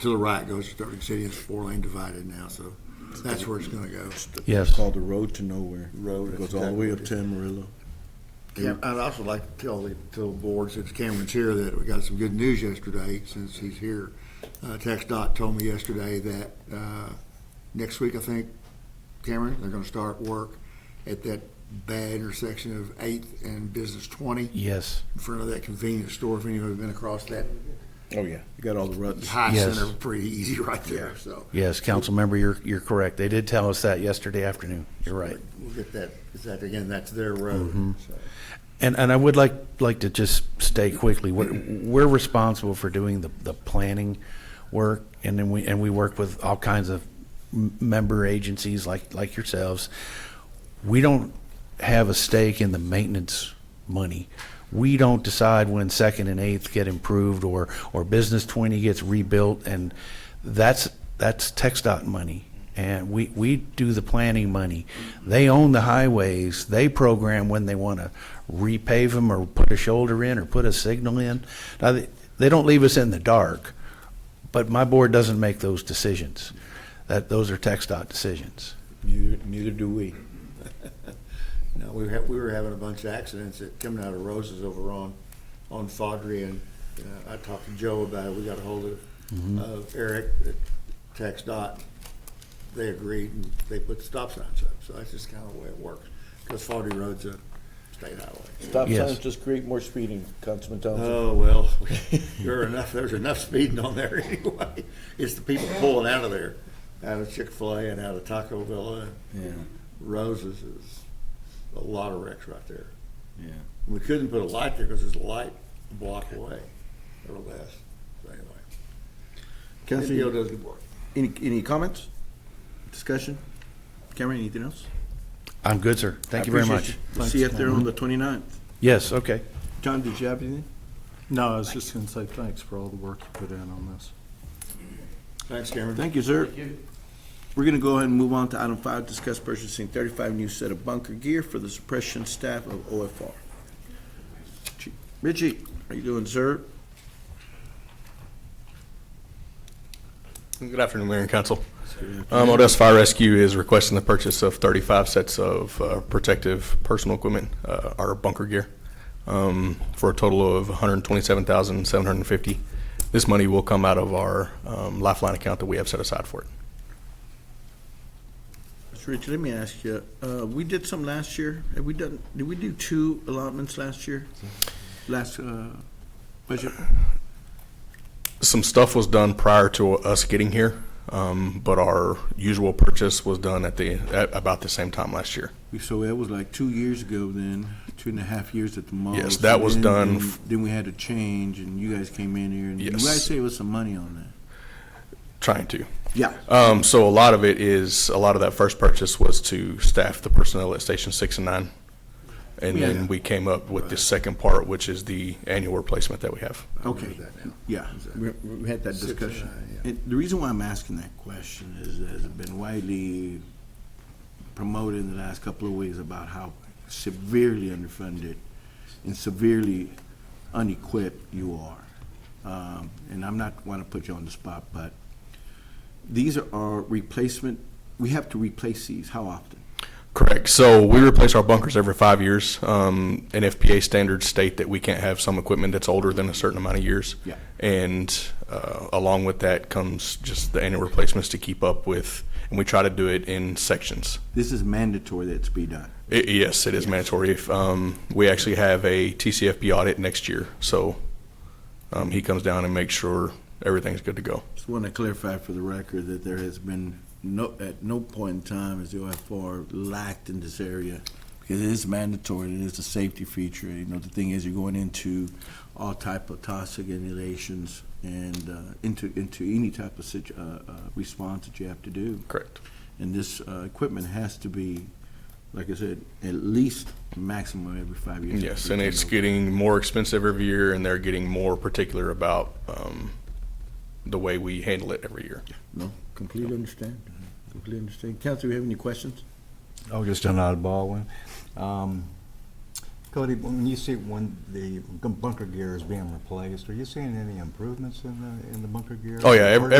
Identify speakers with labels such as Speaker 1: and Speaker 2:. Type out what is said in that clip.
Speaker 1: to the right goes to Sterling City. It's four lane divided now, so that's where it's gonna go.
Speaker 2: Yes.
Speaker 3: It's called the Road to Nowhere.
Speaker 1: Road,
Speaker 3: It
Speaker 1: that's
Speaker 3: goes all the way up to
Speaker 1: exactly
Speaker 3: Amarillo.
Speaker 1: Yeah, I'd also like to tell the, tell the board, since Cameron's here, that we got some good news yesterday, since he's here. Uh, Text dot told me yesterday that, uh, next week, I think, Cameron, they're gonna start work at that bad intersection of Eighth and Business Twenty,
Speaker 2: Yes.
Speaker 1: in front of that convenience store, if anyone's been across that
Speaker 3: Oh, yeah. You got all the ruts.
Speaker 1: high
Speaker 2: Yes.
Speaker 1: center, pretty easy right there, so.
Speaker 2: Yes, council member, you're, you're correct. They did tell us that yesterday afternoon. You're right.
Speaker 1: We'll get that, is that, again, that's their road, so.
Speaker 2: And, and I would like, like to just state quickly, we're, we're responsible for doing the, the planning work, and then we, and we work with all kinds of m- member agencies like, like yourselves. We don't have a stake in the maintenance money. We don't decide when Second and Eighth get improved, or, or Business Twenty gets rebuilt, and that's, that's Tex dot money. And we, we do the planning money. They own the highways. They program when they want to repave them or put a shoulder in or put a signal in. Now, they, they don't leave us in the dark, but my board doesn't make those decisions. That, those are Tex dot decisions.
Speaker 3: Neither, neither do we.
Speaker 1: No, we had, we were having a bunch of accidents that coming out of Roses over on, on Fodry and, uh, I talked to Joe about it, we got a hold of, of Eric at Tex Dot. They agreed and they put stop signs up, so that's just kinda the way it works, cause Fodry Road's a state highway.
Speaker 3: Stop
Speaker 2: Yes.
Speaker 3: signs just create more speeding, Councilman Thompson.
Speaker 1: Oh, well, there are enough, there's enough speeding on there anyway, it's the people pulling out of there, out of Chick-fil-A and out of Taco Villa
Speaker 3: Yeah,
Speaker 1: and Roses is a lot of wrecks right there.
Speaker 3: yeah.
Speaker 1: We couldn't put a light there because there's a light a block away or less. So anyway, NPO
Speaker 3: Council,
Speaker 1: does good work.
Speaker 3: any, any comments? Discussion? Cameron, anything else?
Speaker 2: I'm good, sir. Thank
Speaker 3: I
Speaker 2: you very
Speaker 3: appreciate
Speaker 2: much.
Speaker 3: you. We'll See you up there on the 29th.
Speaker 2: Yes, okay.
Speaker 3: John, did you have anything?
Speaker 4: No, I was just going to say thanks for all the work you put in on this.
Speaker 1: Thanks, Cameron.
Speaker 3: Thank you, sir. We're gonna go ahead and move on to item five, discuss purchasing thirty-five new set of bunker gear for the suppression staff of OFR. Chief- Richie, how you doing, sir?
Speaker 5: Good afternoon, Mayor and Council. Um, Odessa Fire Rescue is requesting the purchase of 35 sets of uh, protective personal equipment, uh, our bunker gear, um, for a total of $127,750. This money will come out of our um, lifeline account that we have set aside for it.
Speaker 3: Mr. Richie, let me ask you, uh, we did some last year, have we done, did we do two allotments last year? Last, uh, budget?
Speaker 5: Some stuff was done prior to us getting here, um, but our usual purchase was done at the, at about the same time last year.
Speaker 3: We- So that was like two years ago then, two and a half years at the most.
Speaker 5: Yes, that was
Speaker 3: And
Speaker 5: done
Speaker 3: Then
Speaker 5: f-
Speaker 3: then we had a change and you guys came in here and you
Speaker 5: Yes.
Speaker 3: guys saved us some money on that.
Speaker 5: Trying to.
Speaker 3: Yeah.
Speaker 5: Um, so a lot of it is, a lot of that first purchase was to staff the personnel at Station Six and Nine. And
Speaker 3: Yeah.
Speaker 5: then we came up with the second part, which is the annual replacement that we have.
Speaker 3: Okay.
Speaker 1: Remember that now.
Speaker 3: Yeah, we, we had that
Speaker 1: Six and
Speaker 3: discussion.
Speaker 1: nine, yeah.
Speaker 3: And the reason why I'm asking that question is, that it's been widely promoted in the last couple of weeks about how severely underfunded and severely unequipped you are. Um, and I'm not want to put you on the spot, but these are our replacement, we have to replace these, how often?
Speaker 5: Correct. So we replace our bunkers every five years. Um, and FPA standards state that we can't have some equipment that's older than a certain amount of years.
Speaker 3: Yeah.
Speaker 5: And, uh, along with that comes just the annual replacements to keep up with, and we try to do it in sections.
Speaker 3: This is mandatory that it's be done.
Speaker 5: I yes, it is mandatory. If, um, we actually have a TCFP audit next year, so, um, he comes down and makes sure everything's good to go.
Speaker 3: Just want to clarify for the record that there has been no, at no point in time has the OFR lacked in this area. Because it is mandatory, it is a safety feature, you know, the thing is, you're going into all type of toxic inhalations and, uh, into, into any type of situ, uh, uh, response that you have to do.
Speaker 5: Correct.
Speaker 3: And this, uh, equipment has to be, like I said, at least maximum every five years.
Speaker 5: Yes, and it's getting more expensive every year, and they're getting more particular about, um, the way we handle it every year.
Speaker 3: No, completely understand, completely understand. Counsel, you have any questions?
Speaker 6: Oh, just an oddball one. Um, Cody, when you see when the bunker gear is being replaced, are you seeing any improvements in the, in the bunker gear?
Speaker 5: Oh, yeah, ev-
Speaker 6: Or-